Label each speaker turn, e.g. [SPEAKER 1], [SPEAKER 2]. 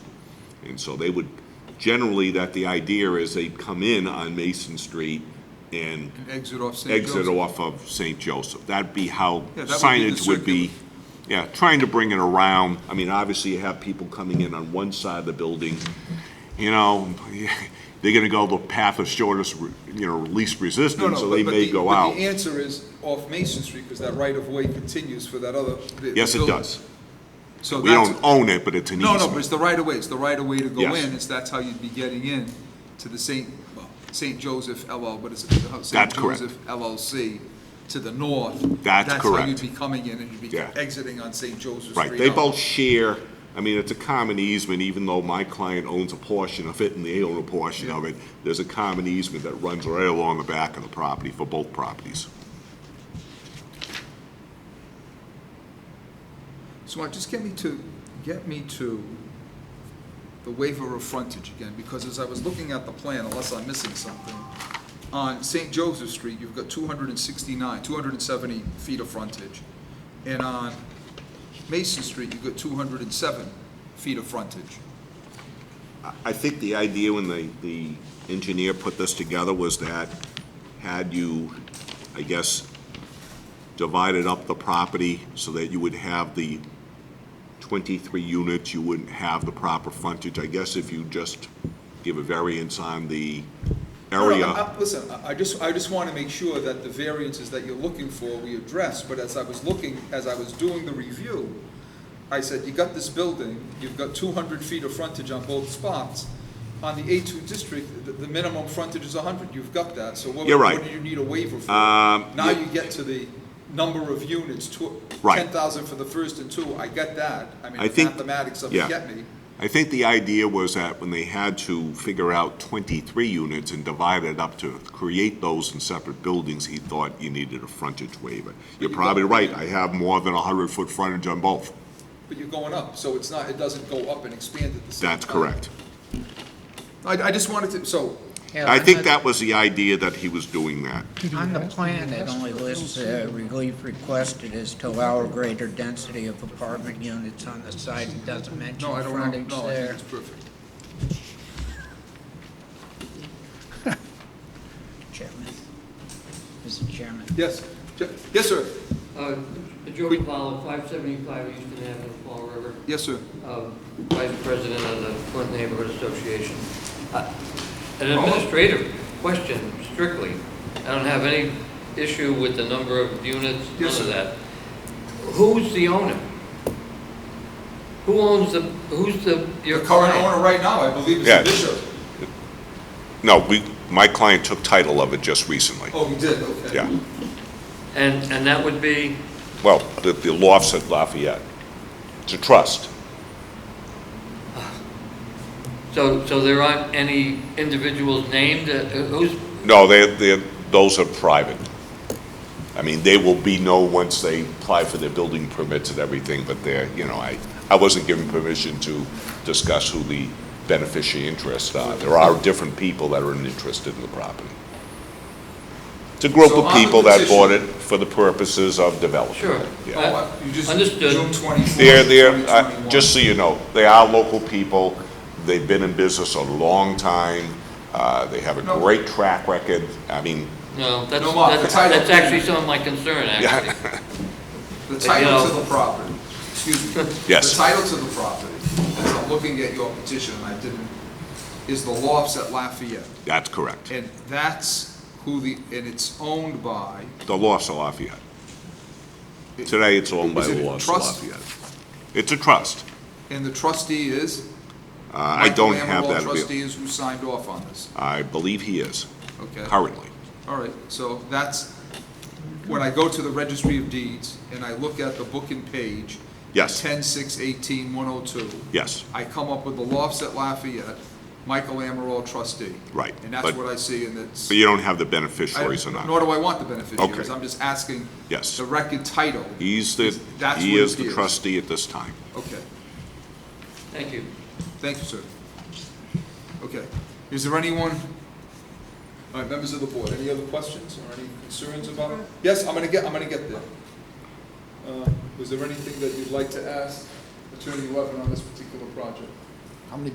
[SPEAKER 1] And so they would, generally, that the idea is they'd come in on Mason Street and
[SPEAKER 2] Exit off St. Joseph.
[SPEAKER 1] exit off of St. Joseph. That'd be how
[SPEAKER 2] Yeah, that would be the
[SPEAKER 1] signage would be. Yeah, trying to bring it around. I mean, obviously, you have people coming in on one side of the building, you know, they're gonna go the path of shortest, re- you know, least
[SPEAKER 2] No,
[SPEAKER 1] resistance,
[SPEAKER 2] no,
[SPEAKER 1] so
[SPEAKER 2] but-
[SPEAKER 1] they
[SPEAKER 2] but
[SPEAKER 1] may
[SPEAKER 2] the-
[SPEAKER 1] go
[SPEAKER 2] but
[SPEAKER 1] out.
[SPEAKER 2] the answer is off Mason Street, because that right-of-way continues for that other. the- the
[SPEAKER 1] Yes, it
[SPEAKER 2] building.
[SPEAKER 1] does.
[SPEAKER 2] So
[SPEAKER 1] We
[SPEAKER 2] that's-
[SPEAKER 1] don't own it, but it's an
[SPEAKER 2] No, no, but
[SPEAKER 1] easement.
[SPEAKER 2] it's the right-of-way, it's the right-of-way to go
[SPEAKER 1] Yes.
[SPEAKER 2] in, it's, that's how you'd be getting in to the St., well, St. Joseph LL, but it's uh, St.
[SPEAKER 1] That's correct.
[SPEAKER 2] Joseph LLC to the north.
[SPEAKER 1] That's
[SPEAKER 2] how
[SPEAKER 1] correct.
[SPEAKER 2] you'd be coming in, and you'd be
[SPEAKER 1] Yeah.
[SPEAKER 2] exiting on St. Joseph Street.
[SPEAKER 1] Right, they
[SPEAKER 2] out.
[SPEAKER 1] both share, I mean, it's a common easement, even though my client owns a portion of it and they own a portion of it. There's a common easement that runs right along the back of the property for both properties.
[SPEAKER 2] So Mark, just get me to, get me to the waiver of frontage again, because as I was looking at the plan, unless I'm missing something, on St. Joseph Street, you've got 269, 270 feet of frontage, and on Mason Street, you've got 207 feet of frontage.
[SPEAKER 1] I think the idea when the, the engineer put this together was that had you, I guess, divided up the property so that you would have the twenty-three units, you wouldn't have the proper frontage. I guess if you just give a variance on the
[SPEAKER 2] No, no,
[SPEAKER 1] area.
[SPEAKER 2] I- I- Listen, I- I just, I just want to make sure that the variances that you're looking for, we address, but as I was looking, as I was doing the review, I said, you got this building, you've got two hundred feet of frontage on both spots. On the A two district, the, the minimum frontage is hundred, you've got that, so what,
[SPEAKER 1] You're right.
[SPEAKER 2] what do you need a waiver for?
[SPEAKER 1] Um,
[SPEAKER 2] Now
[SPEAKER 1] yeah.
[SPEAKER 2] you get to the number of units, tw-
[SPEAKER 1] Right.
[SPEAKER 2] ten thousand for the first and two, I get that, I mean,
[SPEAKER 1] I
[SPEAKER 2] it's
[SPEAKER 1] think-
[SPEAKER 2] mathematics of
[SPEAKER 1] yeah.
[SPEAKER 2] it, get me.
[SPEAKER 1] I think the idea was that when they had to figure out 23 units and divide it up to create those in separate buildings, he thought you needed a frontage waiver. You're
[SPEAKER 2] you
[SPEAKER 1] probably
[SPEAKER 2] don't-
[SPEAKER 1] right, I have more than 100-foot frontage on both.
[SPEAKER 2] But you're going up, so it's not, it doesn't go up and expand at the same time.
[SPEAKER 1] That's correct.
[SPEAKER 2] I, I just wanted to, so,
[SPEAKER 1] I think that was the idea that he was doing that.
[SPEAKER 3] On the plan, it only lists uh, relief requested is to allow a greater density of apartment units on the site. It doesn't mention
[SPEAKER 2] no, I don't want,
[SPEAKER 3] frontage
[SPEAKER 2] no, I think
[SPEAKER 3] there.
[SPEAKER 2] it's perfect.
[SPEAKER 3] Chairman. Mr. Chairman.
[SPEAKER 2] Yes, Je- yes, sir,
[SPEAKER 4] Uh, Joe Cavallo, 575 Eastern Avenue, Fall River,
[SPEAKER 2] yes, sir.
[SPEAKER 4] uh, Vice President of the Flint Neighborhood Association. Uh, An administrative question strictly. I don't have any issue with the number of units, none
[SPEAKER 2] Yes,
[SPEAKER 4] of
[SPEAKER 2] sir.
[SPEAKER 4] that. Who's the owner? Who owns the, who's the, your
[SPEAKER 2] The current
[SPEAKER 4] client?
[SPEAKER 2] owner right now, I believe, is
[SPEAKER 1] Yeah.
[SPEAKER 2] the bishop.
[SPEAKER 1] No, we, my client took title of it just recently.
[SPEAKER 2] Oh, he did, okay.
[SPEAKER 1] Yeah,
[SPEAKER 4] And, and that would be,
[SPEAKER 1] well, the the loft's at Lafayette. It's a trust.
[SPEAKER 4] so, so there aren't any individuals named? Uh, Who's,
[SPEAKER 1] No, they, they, those are private. I mean, they will be known once they apply for their building permits and everything, but they're, you know, I, I wasn't given permission to discuss who the beneficiary interests are. There are different people that are interested in the property. It's a group
[SPEAKER 2] So on
[SPEAKER 1] of
[SPEAKER 2] the
[SPEAKER 1] people that
[SPEAKER 2] petition-
[SPEAKER 1] bought it for the purposes of development.
[SPEAKER 4] Sure.
[SPEAKER 1] Yeah.
[SPEAKER 2] Oh, I- You just,
[SPEAKER 4] Understood.
[SPEAKER 2] June twenty-fourth,
[SPEAKER 1] They're,
[SPEAKER 2] twenty
[SPEAKER 1] they're, uh,
[SPEAKER 2] twenty-one.
[SPEAKER 1] just so you know, they are local people. They've been in business a long time. Uh, they have a
[SPEAKER 2] No.
[SPEAKER 1] great track record. I mean,
[SPEAKER 4] no, that's,
[SPEAKER 2] No, Mark, the
[SPEAKER 4] that's
[SPEAKER 2] title.
[SPEAKER 4] that's actually some of my concern, actually.
[SPEAKER 2] The
[SPEAKER 4] you
[SPEAKER 2] title
[SPEAKER 4] know-
[SPEAKER 2] to the property, excuse me.
[SPEAKER 1] Yes.
[SPEAKER 2] The title to the property, as I'm looking at your petition, and I didn't, is the lofts at Lafayette.
[SPEAKER 1] that's correct.
[SPEAKER 2] And that's who the, and it's owned by,
[SPEAKER 1] The loss of Lafayette. Today, it's owned by
[SPEAKER 2] Is it a
[SPEAKER 1] the loss of
[SPEAKER 2] trust?
[SPEAKER 1] Lafayette. It's a trust.
[SPEAKER 2] and the trustee is?
[SPEAKER 1] Uh, I don't have
[SPEAKER 2] Michael
[SPEAKER 1] that.
[SPEAKER 2] Amaral
[SPEAKER 1] avail-
[SPEAKER 2] trustee is who signed off on this,
[SPEAKER 1] I believe he is
[SPEAKER 2] okay?
[SPEAKER 1] currently.
[SPEAKER 2] All right, so that's, when I go to the registry of deeds and I look at the book and page.
[SPEAKER 1] Yes.
[SPEAKER 2] Ten, six, eighteen, one oh two.
[SPEAKER 1] Yes,
[SPEAKER 2] I come up with the lofts at Lafayette, Michael Amaral trustee.
[SPEAKER 1] Right,
[SPEAKER 2] And that's
[SPEAKER 1] but-
[SPEAKER 2] what I see and it's.
[SPEAKER 1] but you don't have the
[SPEAKER 2] I-
[SPEAKER 1] beneficiaries or
[SPEAKER 2] Nor
[SPEAKER 1] not.
[SPEAKER 2] do I want the beneficiaries,
[SPEAKER 1] Okay.
[SPEAKER 2] I'm just asking.
[SPEAKER 1] Yes.
[SPEAKER 2] The record title,
[SPEAKER 1] He's the,
[SPEAKER 2] That's
[SPEAKER 1] he
[SPEAKER 2] what it
[SPEAKER 1] is the
[SPEAKER 2] is.
[SPEAKER 1] trustee at this time.
[SPEAKER 2] okay,
[SPEAKER 4] Thank you.
[SPEAKER 2] thank you, sir. Okay, is there anyone, all right, members of the board, any other questions or any concerns about it? Yes, I'm gonna get, I'm gonna get there. Uh, Was there anything that you'd like to ask Attorney Levin on this particular project?